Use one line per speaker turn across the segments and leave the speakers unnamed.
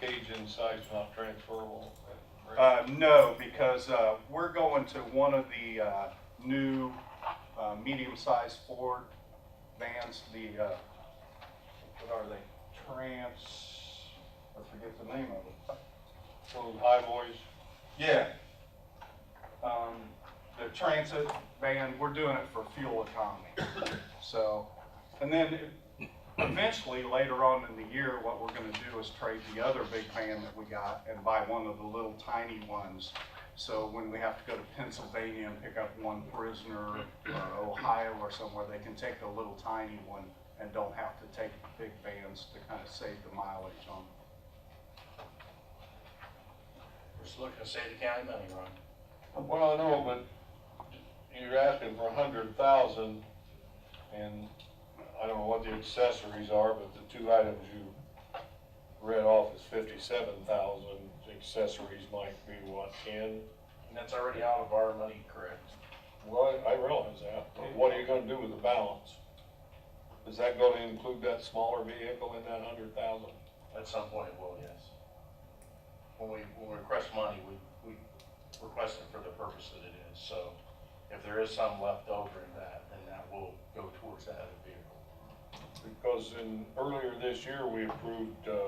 cage inside is not transferable. right?
Uh, no, because, uh, we're going to one of the, uh, new, uh, medium-sized Ford vans, the, uh, what are they? Trans, I forget the name of it.
Little high boys,
Yeah. Um, the transit van, we're doing it for fuel economy, so. And then eventually, later on in the year, what we're gonna do is trade the other big van that we got and buy one of the little tiny ones. So when we have to go to Pennsylvania and pick up one prisoner, or Ohio or somewhere, they can take the little tiny one and don't have to take the big vans to kind of save the mileage on them.
We're just looking to save the county money, Ron.
well, I know, but you're asking for a hundred thousand, and I don't know what the accessories are, but the two items you read off is fifty-seven thousand, accessories might be what, ten?
And that's already out of our money, correct?
Well, I realize that, but what are you gonna do with the balance? Is that gonna include that smaller vehicle in that hundred thousand?
At some point it will, yes. When we, when we request money, we, we request it for the purpose that it is, so if there is some left over in that, then that will go towards that other vehicle.
Because in, earlier this year, we approved, uh,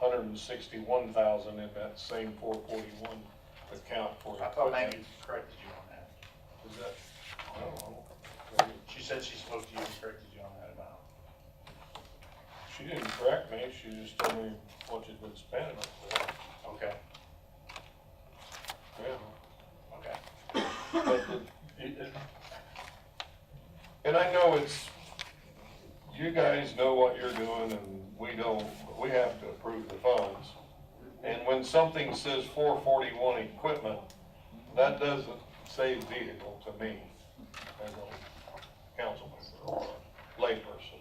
hundred and sixty-one thousand in that same four forty-one account for.
I thought Maggie corrected you on that.
Is that, I don't know. Maybe
She said she spoke to you and corrected you on that amount.
She didn't correct me, she just told me what you'd been spending it for.
Okay,
Yeah.
okay.
But the- it- it- And I know it's, you guys know what you're doing and we don't, but we have to approve the funds. And when something says four forty-one equipment, that doesn't say vehicle to me as a council member or a layperson.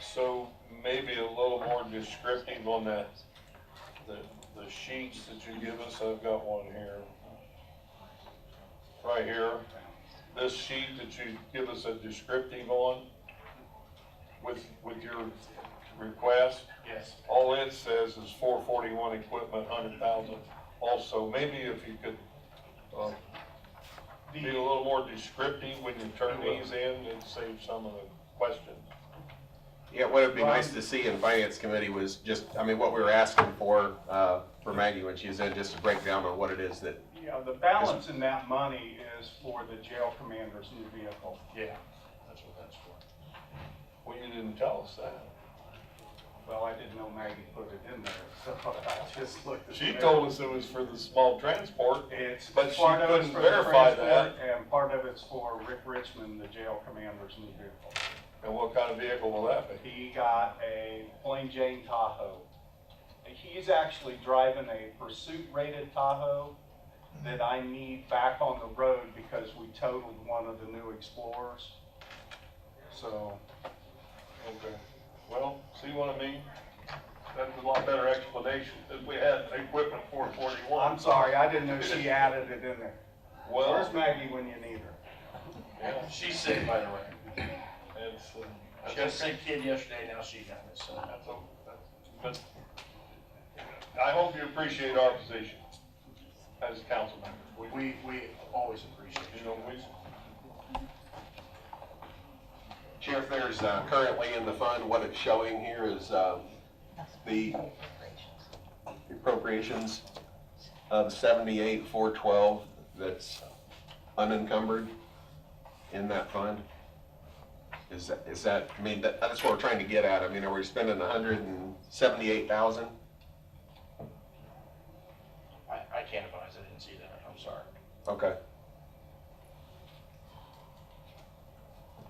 So maybe a little more descriptive on that, the, the sheets that you give us, I've got one here right here, this sheet that you give us a descriptive on with, with your request,
Yes.
all it says is four forty-one equipment, hundred thousand. Also, maybe if you could, uh, be a little more descriptive when you turn these in and save some of the questions.
Yeah, what would be nice to see in finance committee was just, I mean, what we were asking for, uh, for Maggie when she was in, just a breakdown on what it is that,
Yeah, the balance in that money is for the jail commander's new vehicle.
Yeah, that's what that's for.
Well, you didn't tell us that.
Well, I didn't know Maggie put it in there, so I just looked. at
She
the-
told us it was for the small transport.
It's.
but she
part of it's
couldn't
for the
verify
transport, And part of it's for Rick Richmond, the jail commander's new vehicle.
And what kind of vehicle will that be?
He got a plain Jane Tahoe. He's actually driving a pursuit rated Tahoe that I need back on the road because we totaled one of the new Explorers. So,
Okay, well, see what I mean? That's a lot better explanation than we had equipment four
I'm
forty-one.
sorry, I didn't know she added it in there.
Well,
Where's Maggie when you need her?
yeah, uh,
She's sick, by the way.
it's, uh,
She had a sick kid yesterday, now she got it, so that's
that's a, that's, but I hope you appreciate our position as council members. We,
We, we always appreciate
you
you.
know, we,
Sheriff, there's uh, currently in the fund, what it's showing here is, uh, the appropriations of seventy-eight, four twelve, that's unencumbered in that fund. Is that, is that, I mean, that- that's what we're trying to get at, I mean, are we spending hundred and seventy-eight thousand?
I, I can't advise, I didn't see that, I'm sorry.
Okay.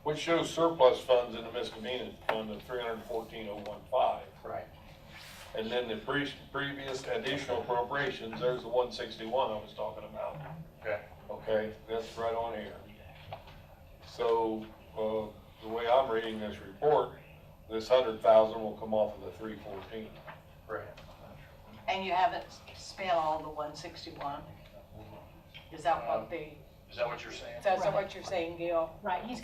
which shows surplus funds in the miscellaneous fund of three hundred and fourteen oh one five.
Right.
And then the pre- previous additional appropriations, there's the one sixty-one I was talking about.
Okay.
Okay, that's right on here. So, uh, the way I'm reading this report, this hundred thousand will come off of the three fourteen.
Right.
And you haven't spent all the one sixty-one? Is that what the,
Is that what you're saying?
is that what you're saying, Gil?
Right, he's